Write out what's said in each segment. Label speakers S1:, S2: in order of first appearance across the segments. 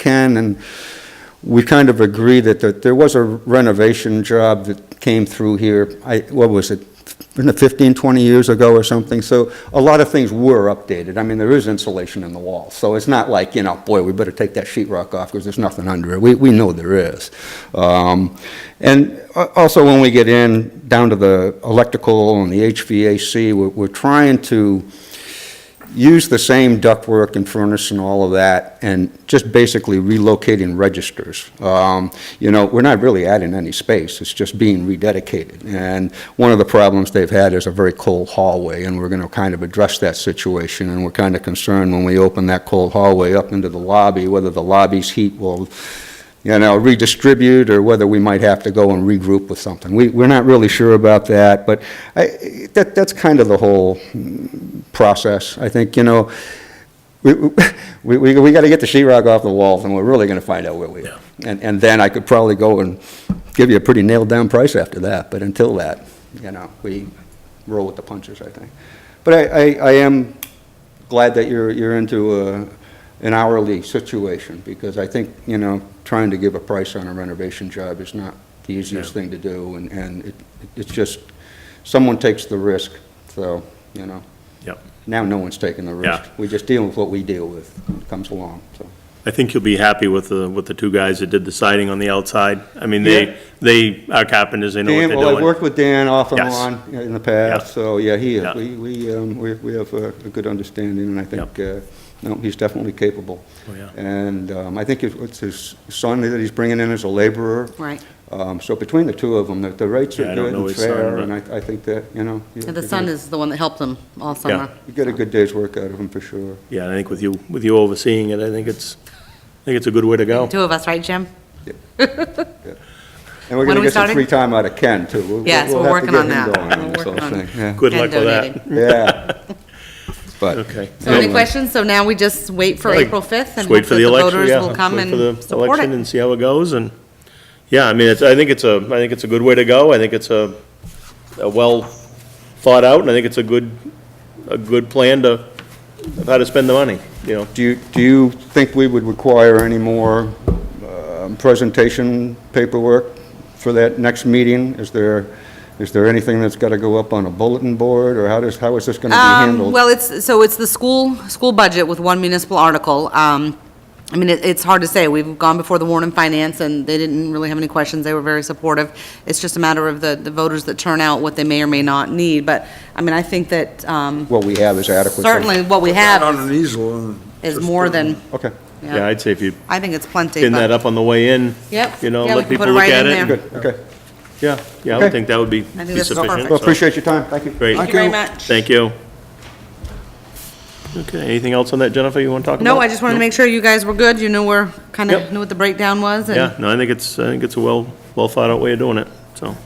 S1: can, and we kind of agree that, that there was a renovation job that came through here, I, what was it, in the 15, 20 years ago or something, so a lot of things were updated. I mean, there is insulation in the wall, so it's not like, you know, boy, we better take that sheetrock off because there's nothing under it. We, we know there is. Um, And a- also, when we get in, down to the electrical and the HVAC, we're, we're trying to use the same ductwork and furnace and all of that, and just basically relocating registers. Um, You know, we're not really adding any space, it's just being rededicated. And one of the problems they've had is a very cold hallway, and we're going to kind of address that situation, and we're kind of concerned when we open that cold hallway up into the lobby, whether the lobby's heat will you know, redistribute, or whether we might have to go and regroup with something. We, we're not really sure about that, but I, that, that's kind of the whole mm, process. I think, you know, we, we, we, we gotta get the sheetrock off the walls, and we're really gonna find out where we are. And, and then I could probably go and give you a pretty nailed-down price after that, but until that, you know, we roll with the punches, I think. But I, I, I am glad that you're, you're into a, an hourly situation, because I think, you know, trying to give a price on a renovation job is not the easiest thing to do, and, and it, it's just, someone takes the risk, so, you know.
S2: Yep.
S1: Now no one's taking the risk.
S2: Yeah.
S1: We just deal with what we deal with, It comes along, so.
S2: I think you'll be happy with the, with the two guys that did the siding on the outside. I mean, they, they are carpenters, they know what
S1: Dan, well, I've
S2: they're doing.
S1: worked with Dan off and
S2: Yes.
S1: on in the past,
S2: Yeah.
S1: so, yeah, he is.
S2: Yeah.
S1: We, we, um, we we have a a good understanding, and I think, uh, no, he's definitely capable.
S2: Oh, yeah.
S1: And um, I think it's- it's his son that he's bringing in as a laborer.
S3: Right.
S1: Um, So between the two of them, the- the rates
S2: Yeah,
S1: are
S2: I don't
S1: good
S2: know
S1: and
S2: his son,
S1: fair,
S2: but-
S1: and I, I think that, you know. you-
S3: And the
S1: you
S3: son
S1: get-
S3: is the one that helped them all summer.
S1: You get a good day's work out of him, for sure.
S2: Yeah, and I think with you, with you overseeing it, I think it's, I think it's a good way to go.
S3: Two of us, right, Jim?
S1: And we're
S3: When
S1: going
S3: are
S1: to
S3: we
S1: get some
S3: starting?
S1: free time out of Ken, too. We'll-
S3: Yes,
S1: we'll
S3: we're
S1: have to
S3: working
S1: get
S3: on
S1: him
S3: that.
S1: going on
S3: We're
S1: this whole
S3: working on
S1: thing, yeah.
S2: Good
S3: And
S2: luck with that.
S3: donating.
S1: Yeah. But.
S2: Okay.
S3: So any
S1: Anyway.
S3: questions? So now we just wait for
S2: Like,
S3: April 5th and
S2: Just
S3: hope
S2: wait for
S3: that
S2: the
S3: the
S2: election,
S3: voters
S2: yeah.
S3: will come
S2: Wait for
S3: and
S2: the
S3: support
S2: election
S3: it.
S2: and see how it goes, and, yeah, I mean, it's, I think it's a, I think it's a good way to go. I think it's a, a well thought out, and I think it's a good, a good plan to, of how to spend the money, you know?
S1: Do you, do you think we would require any more um, presentation paperwork for that next meeting? Is there, is there anything that's got to go up on a bulletin board, or how does, how is this going to be
S3: Um,
S1: handled?
S3: well, it's, so it's the school, school budget with one municipal article. Um, I mean, it, it's hard to say. We've gone before the Warren and Finance, and they didn't really have any questions. They were very supportive. It's just a matter of the, the voters that turn out what they may or may not need. But, I mean, I think that, um,
S1: What we have is adequate. then?
S3: certainly what we
S4: On
S3: have
S4: an easel and.
S3: is
S4: just
S3: more
S4: put it in.
S3: than,
S1: Okay,
S2: Yeah, I'd say if you
S3: I think it's plenty.
S2: pin
S3: but-
S2: that up on the way in.
S3: Yep.
S2: You know,
S3: Yeah, we
S2: let
S3: can
S2: people
S3: put it
S2: look
S3: right
S2: at
S3: in
S2: it.
S3: there.
S1: good, okay.
S2: Yeah, yeah, I would
S1: Okay.
S2: think that would be
S3: think
S2: be
S3: that's
S2: sufficient.
S3: perfect.
S1: Well,
S2: so.
S1: appreciate your time, thank you.
S3: Thank
S2: Great,
S3: you very much.
S2: thank you. Okay, anything else on that, Jennifer, you want to talk about?
S3: No, I just wanted to make sure you guys were good. You knew where, kind
S2: Yep.
S3: of knew what the breakdown was and.
S2: Yeah, no, I think it's, I think it's a well, well thought out way of doing it, so.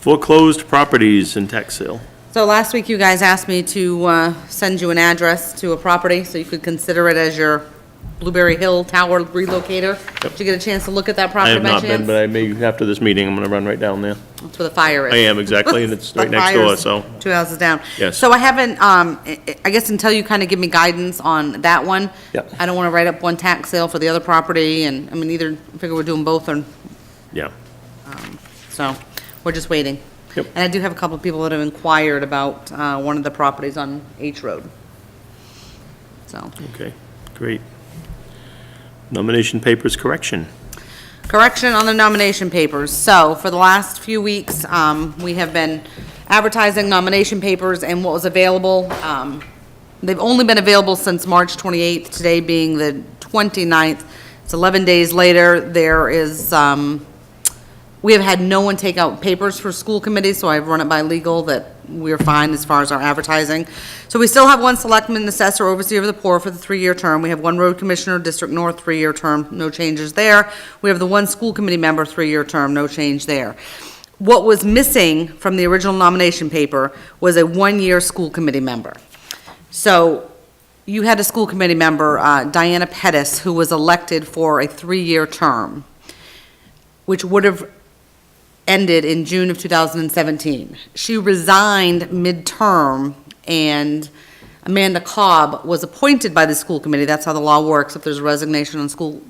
S2: Foreclosed properties and tax sale.
S3: So last week, you guys asked me to uh, send you an address to a property, so you could consider it as your Blueberry Hill Tower relocator. Did you get a chance to look at that
S2: I
S3: property
S2: have
S3: by
S2: not been,
S3: chance?
S2: but I may, after this meeting, I'm going to run right down there.
S3: That's where the fire is.
S2: I am, exactly, and it's right
S3: The
S2: next door,
S3: fire's
S2: so.
S3: Two houses down.
S2: Yes.
S3: So I haven't, um, I I guess until you kind of give me guidance on that one.
S2: Yep.
S3: I don't want to write up one tax sale for the other property, and, I mean, either, I figure we're doing both, and,
S2: Yeah,
S3: so, we're just waiting.
S2: Yep.
S3: And I do have a couple of people that have inquired about uh, one of the properties on H Road. So.
S2: okay, great. Nomination papers correction.
S3: Correction on the nomination papers. So for the last few weeks, um, we have been advertising nomination papers and what was available. Um, They've only been available since March 28th, today being the 29th. It's 11 days later. There is, um, we have had no one take out papers for school committees, so I've run it by legal that we're fine as far as our advertising. So we still have one selectman, assessor, overseer of the poor for the three-year term. We have one road commissioner, District North, three-year term, no changes there. We have the one school committee member, three-year term, no change there. What was missing from the original nomination paper was a one-year school committee member. So you had a school committee member, uh, Diana Pettis, who was elected for a three-year term, which would have ended in June of 2017. She resigned midterm, and um, Amanda Cobb was appointed by the school committee. That's how the law works. If there's a resignation on school,